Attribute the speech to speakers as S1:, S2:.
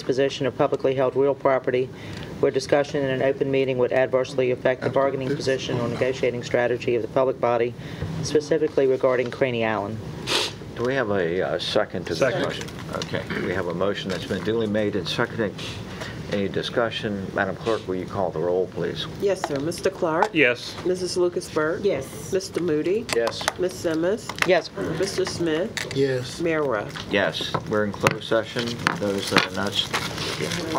S1: disposition of publicly held real property where discussion in an open meeting would adversely affect the bargaining position or negotiating strategy of the public body, specifically regarding Craney Allen.
S2: Do we have a uh, second to this
S3: Second.
S2: motion? Okay, we have a motion that's been duly made and seconded. Any discussion? Madam Clerk, will you call the roll, please?
S4: Yes, sir. Mr. Clark?
S3: Yes.
S4: Mrs. Lucasberg?
S5: Yes.
S4: Mr. Moody?
S2: Yes.
S4: Ms. Simmons?
S1: Yes,
S4: Mr. Smith?
S6: Yes.
S4: Mayor Ruff?
S2: Yes, we're in closed session. Those that are not